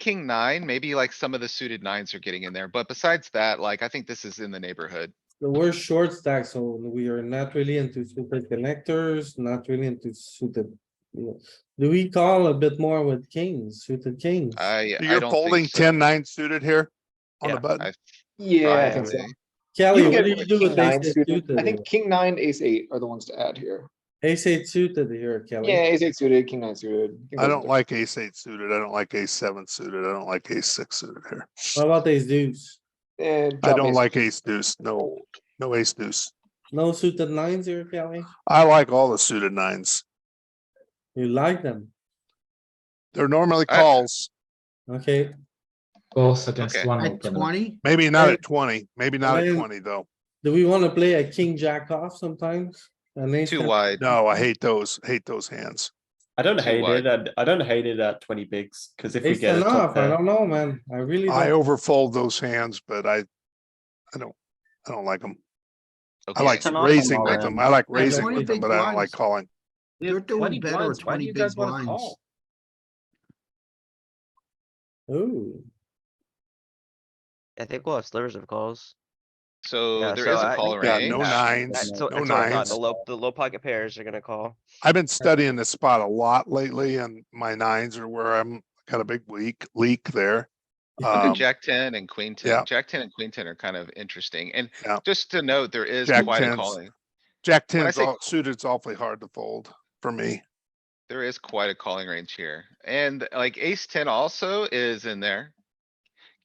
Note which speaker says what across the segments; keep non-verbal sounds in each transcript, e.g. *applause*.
Speaker 1: king nine, maybe like some of the suited nines are getting in there, but besides that, like, I think this is in the neighborhood.
Speaker 2: So we're short stack, so we are not really into super connectors, not really into suited. you know. Do we call a bit more with kings, suited kings?
Speaker 1: I, I
Speaker 3: You're
Speaker 1: don't
Speaker 3: folding
Speaker 1: think so.
Speaker 3: ten nine suited here on the
Speaker 4: Yeah.
Speaker 3: button.
Speaker 1: I
Speaker 5: Yeah,
Speaker 1: think so.
Speaker 2: Kelly,
Speaker 5: you
Speaker 2: what
Speaker 5: get
Speaker 2: do
Speaker 5: rid
Speaker 2: you
Speaker 5: of
Speaker 2: do
Speaker 5: king
Speaker 2: with
Speaker 5: nine
Speaker 2: ace eight
Speaker 5: suited. I
Speaker 2: suited?
Speaker 5: think king nine, ace eight are the ones to add here.
Speaker 2: Ace eight suited here,
Speaker 5: Yeah,
Speaker 2: Kelly.
Speaker 5: ace eight suited, king nine suited. King
Speaker 3: I
Speaker 5: nine
Speaker 3: don't
Speaker 5: suited.
Speaker 3: like ace eight suited. I don't like ace seven suited. I don't like ace six suited here.
Speaker 2: What about ace deuce?
Speaker 5: Eh,
Speaker 3: I
Speaker 5: drop
Speaker 3: don't
Speaker 5: ace-
Speaker 3: like ace deuce. No, no ace deuce.
Speaker 2: No suited nines here, Kelly?
Speaker 3: I like all the suited nines.
Speaker 2: You like them,
Speaker 3: They're normally
Speaker 1: I-
Speaker 3: calls,
Speaker 2: okay?
Speaker 6: Both against
Speaker 1: Okay.
Speaker 6: one
Speaker 7: At
Speaker 6: opener.
Speaker 7: twenty,
Speaker 3: maybe not
Speaker 2: I-
Speaker 3: at twenty, maybe not
Speaker 2: I-
Speaker 3: at twenty though.
Speaker 2: Do we wanna play a king jack off sometimes? An ace
Speaker 1: Too
Speaker 2: ten-
Speaker 1: wide.
Speaker 3: No, I hate those, hate those hands.
Speaker 4: I don't
Speaker 1: Too
Speaker 4: hate
Speaker 1: wide.
Speaker 4: it. I'd- I don't hate it at twenty bigs because if we
Speaker 2: Ace
Speaker 4: get a
Speaker 2: ten
Speaker 4: top
Speaker 2: off, I
Speaker 4: pair,
Speaker 2: don't know, man. I really,
Speaker 3: I
Speaker 2: don't-
Speaker 3: overfold those hands, but I, I don't, I don't like them. I
Speaker 1: Okay.
Speaker 3: like
Speaker 4: Turn off them
Speaker 3: raising
Speaker 4: all
Speaker 3: with
Speaker 4: in.
Speaker 3: them. I like
Speaker 7: Yeah,
Speaker 3: raising
Speaker 7: 20
Speaker 3: with them,
Speaker 7: big
Speaker 3: but I don't like
Speaker 7: blinds.
Speaker 3: calling.
Speaker 4: We have
Speaker 7: You're doing
Speaker 4: 20
Speaker 7: better
Speaker 4: blinds.
Speaker 7: with
Speaker 4: Why do
Speaker 7: 20
Speaker 4: you
Speaker 7: big
Speaker 4: guys wanna
Speaker 7: blinds.
Speaker 4: call?
Speaker 2: ooh,
Speaker 8: I think we'll have slivers of calls.
Speaker 1: So
Speaker 8: Yeah,
Speaker 1: there
Speaker 8: so
Speaker 1: is a
Speaker 8: I-
Speaker 1: caller
Speaker 3: Yeah,
Speaker 1: range.
Speaker 3: no
Speaker 8: Yeah.
Speaker 3: nines,
Speaker 8: That's so,
Speaker 3: no
Speaker 8: that's all I got.
Speaker 3: nines.
Speaker 8: The low, the low pocket pairs are gonna call.
Speaker 3: I've been studying this spot a lot lately and my nines are where I'm got a big weak leak there.
Speaker 1: I think
Speaker 3: Um,
Speaker 1: Jack ten and queen
Speaker 3: yeah.
Speaker 1: ten, Jack ten and queen ten are kind of interesting, and
Speaker 3: Yeah.
Speaker 1: just to note, there is
Speaker 3: Jack
Speaker 1: quite a
Speaker 3: 10s.
Speaker 1: calling,
Speaker 3: Jack
Speaker 1: when I
Speaker 3: ten's
Speaker 1: say-
Speaker 3: all suited's awfully hard to fold for me.
Speaker 1: there is quite a calling range here, and like ace ten also is in there.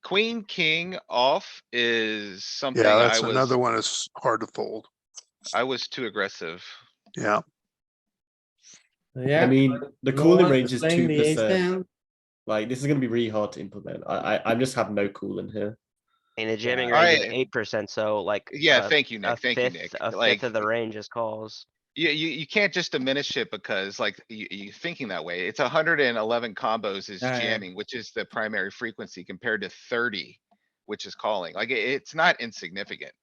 Speaker 1: Queen, king off is something
Speaker 3: Yeah,
Speaker 1: I
Speaker 3: that's another
Speaker 1: was,
Speaker 3: one that's hard to fold.
Speaker 1: I was too aggressive.
Speaker 3: Yeah,
Speaker 4: I
Speaker 2: yeah.
Speaker 4: mean, the
Speaker 2: No
Speaker 4: cooling
Speaker 2: one
Speaker 4: range is
Speaker 2: playing
Speaker 4: two
Speaker 2: the ace
Speaker 4: percent.
Speaker 2: ten.
Speaker 4: Like this is gonna be really hard to implement. I I, I just have no cooling here.
Speaker 8: And the jamming
Speaker 1: Yeah.
Speaker 8: range is
Speaker 1: Alright.
Speaker 8: eight percent, so like.
Speaker 1: Yeah,
Speaker 8: a-
Speaker 1: thank you,
Speaker 8: a
Speaker 1: Nick, thank you,
Speaker 8: fifth-
Speaker 1: Nick.
Speaker 8: A
Speaker 1: Like,
Speaker 8: fifth of the range is calls.
Speaker 1: you, you, you can't just diminish it because like, you, you thinking that way, it's hundred and eleven combos is
Speaker 2: Yeah, yeah.
Speaker 1: jamming, which is the primary frequency compared to thirty, which is calling, like, it- it's not insignificant.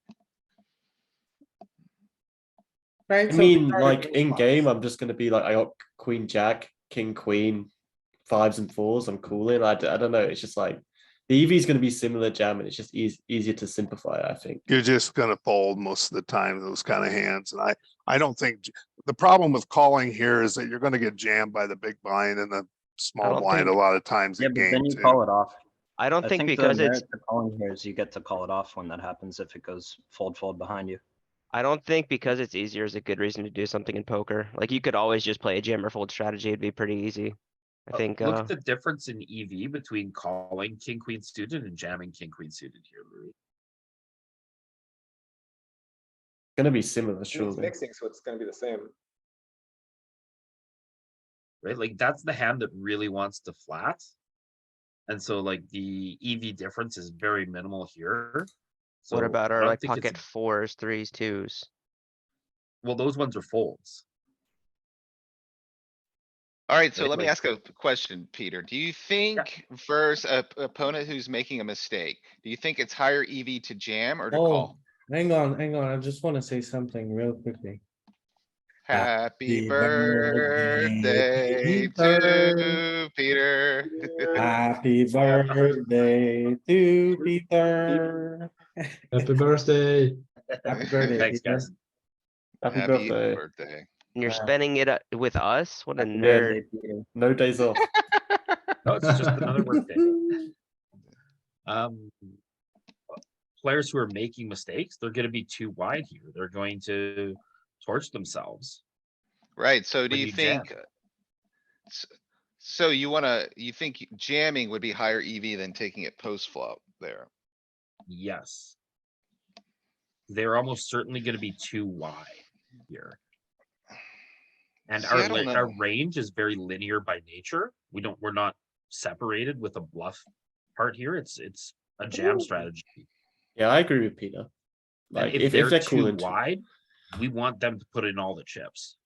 Speaker 2: Right,
Speaker 4: I
Speaker 2: so we
Speaker 4: mean,
Speaker 2: started
Speaker 4: like
Speaker 2: with
Speaker 4: in
Speaker 2: fives.
Speaker 4: game, I'm just gonna be like I got queen jack, king queen, fives and fours. I'm cooling. I, d- I don't know. It's just like the EV is gonna be similar jam, and it's just eas easier to simplify. I think.
Speaker 3: you're just gonna fold most of the time, those kind of hands. And I, I don't think, j- the problem with calling here is that you're gonna get jammed by the big blind and the small
Speaker 6: don't
Speaker 3: blind a
Speaker 6: think-
Speaker 3: lot of times
Speaker 9: Yeah,
Speaker 3: in
Speaker 9: but
Speaker 3: game
Speaker 9: then you
Speaker 3: too.
Speaker 9: call it off.
Speaker 8: I don't
Speaker 9: I
Speaker 8: think
Speaker 9: think the
Speaker 8: because it's,
Speaker 9: merit of calling here is you get to call it off when that happens if it goes fold, fold behind you.
Speaker 8: I don't think because it's easier is a good reason to do something in poker. Like you could always just play a jam or fold strategy. It'd be pretty easy. I
Speaker 1: Oh,
Speaker 10: Uh,
Speaker 8: think,
Speaker 10: Look
Speaker 8: uh,
Speaker 10: at the difference in EV between calling king, queen suited and jamming king, queen suited here, Louis.
Speaker 4: It's gonna be similar,
Speaker 5: It's
Speaker 4: surely.
Speaker 5: Mixing, so it's gonna be the same.
Speaker 10: Right? Like that's the hand that really wants to flat. And so like the EV difference is very minimal here. So
Speaker 8: what about
Speaker 10: I
Speaker 8: our
Speaker 10: don't
Speaker 8: like
Speaker 10: think it's-
Speaker 8: pocket fours, threes, twos?
Speaker 10: Well, those ones are folds.
Speaker 1: Alright, so
Speaker 10: Right,
Speaker 1: let me
Speaker 10: like-
Speaker 1: ask a question, Peter. Do you think versus a p- opponent who's making a mistake, do you think it's higher EV to jam or to
Speaker 2: Oh,
Speaker 1: call?
Speaker 2: hang on, hang on. I just wanna say something real quickly.
Speaker 1: Happy
Speaker 2: birthday
Speaker 1: birthday
Speaker 2: to
Speaker 1: to Peter.
Speaker 2: Happy birthday to Peter.
Speaker 6: Happy birthday.
Speaker 2: Happy birthday,
Speaker 10: Thanks, guys.
Speaker 2: Peter.
Speaker 4: Happy,
Speaker 1: Happy
Speaker 4: birthday.
Speaker 1: birthday.
Speaker 8: And you're
Speaker 2: Uh,
Speaker 8: spending it uh, with us? What a
Speaker 4: Happy
Speaker 8: nerd.
Speaker 4: birthday, Peter. No days off.
Speaker 10: No, it's just
Speaker 2: *laughs*
Speaker 10: another workday. Um. Players who are making mistakes, they're gonna be too wide here. They're going to torch themselves.
Speaker 1: Right, so do
Speaker 10: When
Speaker 1: you
Speaker 10: you jam.
Speaker 1: think? uh, s- So you wanna, you think jamming would be higher EV than taking it post flop there?
Speaker 10: Yes. They're almost certainly gonna be too wide here. And
Speaker 1: See, I
Speaker 10: our,
Speaker 1: don't
Speaker 10: li- our
Speaker 1: know.
Speaker 10: range is very linear by nature. We don't, we're not separated with a bluff part here. It's, it's a jam strategy.
Speaker 4: Yeah, I agree with Peter.
Speaker 10: And
Speaker 4: Like if, if they're
Speaker 10: too
Speaker 4: cooling, too-
Speaker 10: wide, we want them to put in all the chips.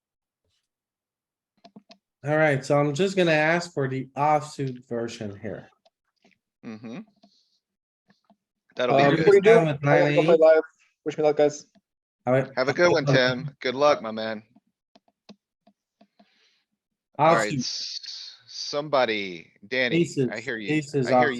Speaker 2: Alright, so I'm just gonna ask for the offsuit version here.
Speaker 1: Mm-hmm.
Speaker 2: Uh,
Speaker 1: That'll be good.
Speaker 2: before you-
Speaker 5: Before you do,
Speaker 2: down with
Speaker 5: I gotta go play
Speaker 2: 98.
Speaker 5: live. Wish me luck, guys.
Speaker 2: Alright,
Speaker 1: Have a good
Speaker 2: *laughs*
Speaker 1: one, Tim. Good luck, my man. Alright,
Speaker 2: Offsuit,
Speaker 1: s-
Speaker 2: somebody, Danny, I
Speaker 1: Aces,
Speaker 2: hear you.
Speaker 1: aces
Speaker 2: I
Speaker 1: off
Speaker 2: hear you.